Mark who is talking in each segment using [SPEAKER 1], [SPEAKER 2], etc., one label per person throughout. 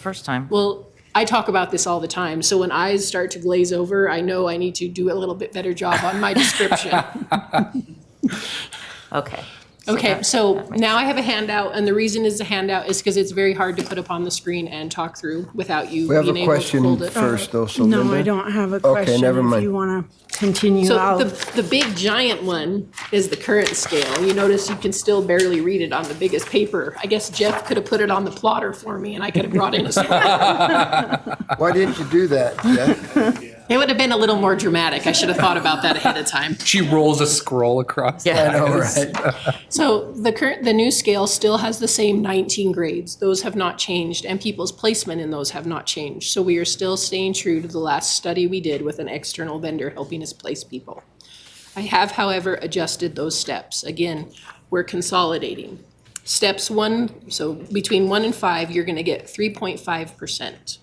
[SPEAKER 1] first time.
[SPEAKER 2] Well, I talk about this all the time, so when eyes start to glaze over, I know I need to do a little bit better job on my description.
[SPEAKER 1] Okay.
[SPEAKER 2] Okay,
[SPEAKER 1] that-
[SPEAKER 2] so
[SPEAKER 1] that makes
[SPEAKER 2] now I have a handout, and the reason is the handout is because it's very hard to put up on the screen and talk through without you
[SPEAKER 3] We have
[SPEAKER 2] being
[SPEAKER 3] a
[SPEAKER 2] able to
[SPEAKER 3] question
[SPEAKER 2] hold it.
[SPEAKER 3] first, though, so Linda.
[SPEAKER 4] Uh, No, I don't have a question.
[SPEAKER 3] never
[SPEAKER 4] If
[SPEAKER 3] mind.
[SPEAKER 4] you want to continue
[SPEAKER 2] So the,
[SPEAKER 4] out.
[SPEAKER 2] the big giant one is the current scale. You notice you can still barely read it on the biggest paper. I guess Jeff could have put it on the plotter for me, and I could have brought in a screen.
[SPEAKER 3] Why didn't you do that, Jeff?
[SPEAKER 2] It would have been a little more dramatic. I should have thought about that ahead of time.
[SPEAKER 5] She rolls a scroll across.
[SPEAKER 1] Yeah.
[SPEAKER 5] the
[SPEAKER 3] All
[SPEAKER 5] eyes.
[SPEAKER 3] right.
[SPEAKER 2] So the current, the new scale still has the same 19 grades. Those have not changed, and people's placement in those have not changed. So we are still staying true to the last study we did with an external vendor helping us place people. I have, however, adjusted those steps. Again, we're consolidating. Steps one, so between one and five, you're going to get 3.5%.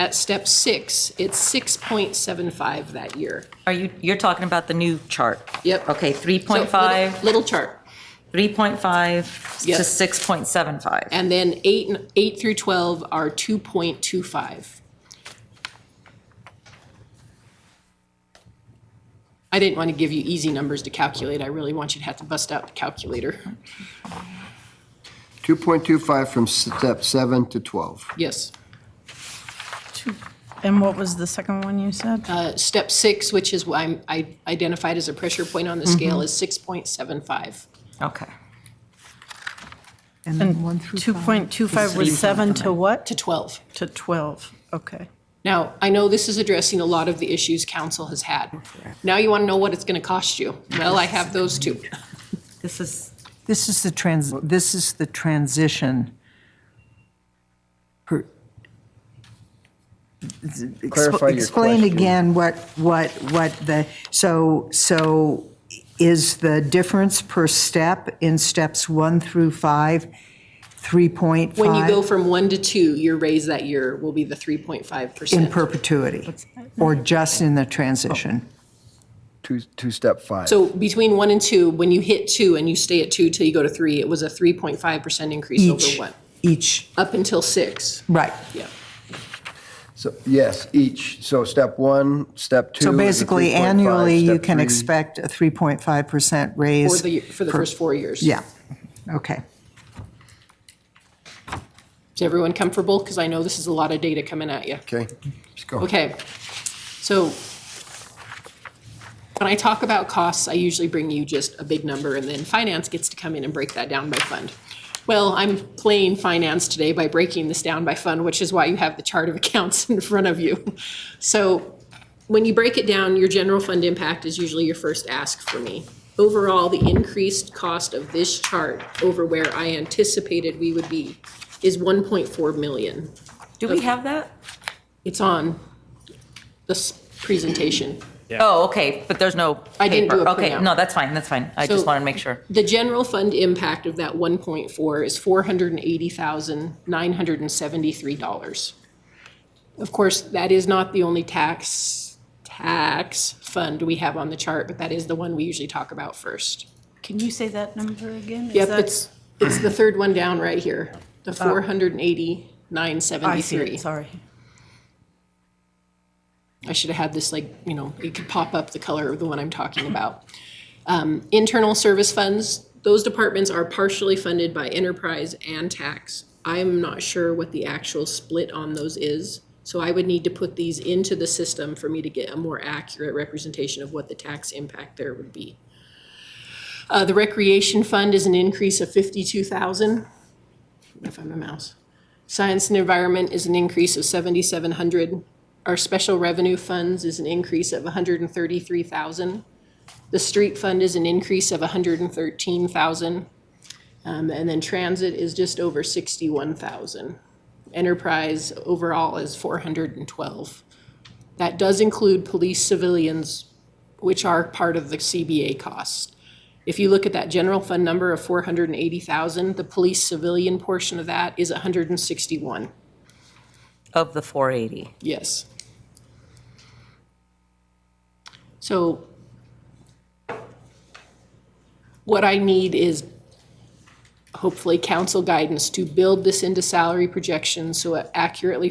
[SPEAKER 2] At step six, it's 6.75 that year.
[SPEAKER 1] Are you, you're talking about the new chart?
[SPEAKER 2] Yep.
[SPEAKER 1] Okay,
[SPEAKER 2] So, little-
[SPEAKER 1] 3.5,
[SPEAKER 2] Little chart.
[SPEAKER 1] 3.5 to
[SPEAKER 2] Yep.
[SPEAKER 1] 6.75.
[SPEAKER 2] And then eight, and- eight through 12 are 2.25. I didn't want to give you easy numbers to calculate. I really want you to have to bust out the calculator.
[SPEAKER 3] 2.25 from step seven to 12.
[SPEAKER 2] Yes.
[SPEAKER 4] And what was the second one you said?
[SPEAKER 2] Uh, Step six, which is what I'm- I identified as a pressure point on the scale, is 6.75.
[SPEAKER 1] Okay.
[SPEAKER 6] And then one through five.
[SPEAKER 4] 2.25 was seven to what?
[SPEAKER 2] To 12.
[SPEAKER 4] To 12, okay.
[SPEAKER 2] Now, I know this is addressing a lot of the issues council has had. Now you want to know what it's going to cost you. Well, I have those too.
[SPEAKER 1] This is,
[SPEAKER 6] This is the trans, this is the transition. per- Expl-
[SPEAKER 3] Clarify your
[SPEAKER 6] Explain
[SPEAKER 3] question.
[SPEAKER 6] again what, what, what the, so, so is the difference per step in steps one through five, 3.5?
[SPEAKER 2] When you go from one to two, your raise that year will be the 3.5%.
[SPEAKER 6] In perpetuity, or just in the
[SPEAKER 2] Oh,
[SPEAKER 6] transition?
[SPEAKER 3] Two, two step five.
[SPEAKER 2] So between one and two, when you hit two and you stay at two till you go to three, it was a three point five percent increase over
[SPEAKER 6] Each,
[SPEAKER 2] one,
[SPEAKER 6] each,
[SPEAKER 2] up until six.
[SPEAKER 6] right.
[SPEAKER 2] Yeah.
[SPEAKER 3] So, yes, each. So step one, step two.
[SPEAKER 6] So
[SPEAKER 3] is a
[SPEAKER 6] basically
[SPEAKER 3] 3.5,
[SPEAKER 6] annually, you
[SPEAKER 3] step
[SPEAKER 6] can
[SPEAKER 3] three-
[SPEAKER 6] expect a 3.5%
[SPEAKER 2] For
[SPEAKER 6] raise.
[SPEAKER 2] the, for the first four years.
[SPEAKER 6] Yeah, okay.
[SPEAKER 2] Is everyone comfortable? Because I know this is a lot of data coming at you.
[SPEAKER 3] Okay, let's go.
[SPEAKER 2] Okay, so when I talk about costs, I usually bring you just a big number, and then finance gets to come in and break that down by fund. Well, I'm playing finance today by breaking this down by fund, which is why you have the chart of accounts in front of you. So when you break it down, your general fund impact is usually your first ask for me. Overall, the increased cost of this chart over where I anticipated we would be is 1.4 million.
[SPEAKER 1] do we have that?
[SPEAKER 2] It's on this presentation.
[SPEAKER 1] Oh, okay, but there's no paper.
[SPEAKER 2] I didn't do a
[SPEAKER 1] Okay,
[SPEAKER 2] printout.
[SPEAKER 1] no, that's fine, that's fine. I just
[SPEAKER 2] So-
[SPEAKER 1] wanted to make sure.
[SPEAKER 2] The general fund impact of that 1.4 is $480,973. Of course, that is not the only tax, tax fund we have on the chart, but that is the one we usually talk about first.
[SPEAKER 4] Can you say that number again? Is
[SPEAKER 2] Yep,
[SPEAKER 4] that- Oh.
[SPEAKER 2] it's, it's the third one down right here, the 480,973.
[SPEAKER 4] I see it, sorry.
[SPEAKER 2] I should have had this like, you know, it could pop up the color of the one I'm talking about. Um, internal service funds, those departments are partially funded by enterprise and tax. I'm not sure what the actual split on those is, so I would need to put these into the system for me to get a more accurate representation of what the tax impact there would be. Uh, the recreation fund is an increase of fifty-two thousand, if I'm a mouse. Science and environment is an increase of seventy-seven hundred. Our special revenue funds is an increase of hundred and thirty-three thousand. The street fund is an increase of hundred and thirteen thousand. Um, and then transit is just over sixty-one thousand. Enterprise overall is four hundred and twelve. That does include police civilians, which are part of the CBA costs. If you look at that general fund number of four hundred and eighty thousand, the police civilian portion of that is hundred and sixty-one,
[SPEAKER 1] Of the 480.
[SPEAKER 2] yes. So what I need is hopefully council guidance to build this into salary projections so it accurately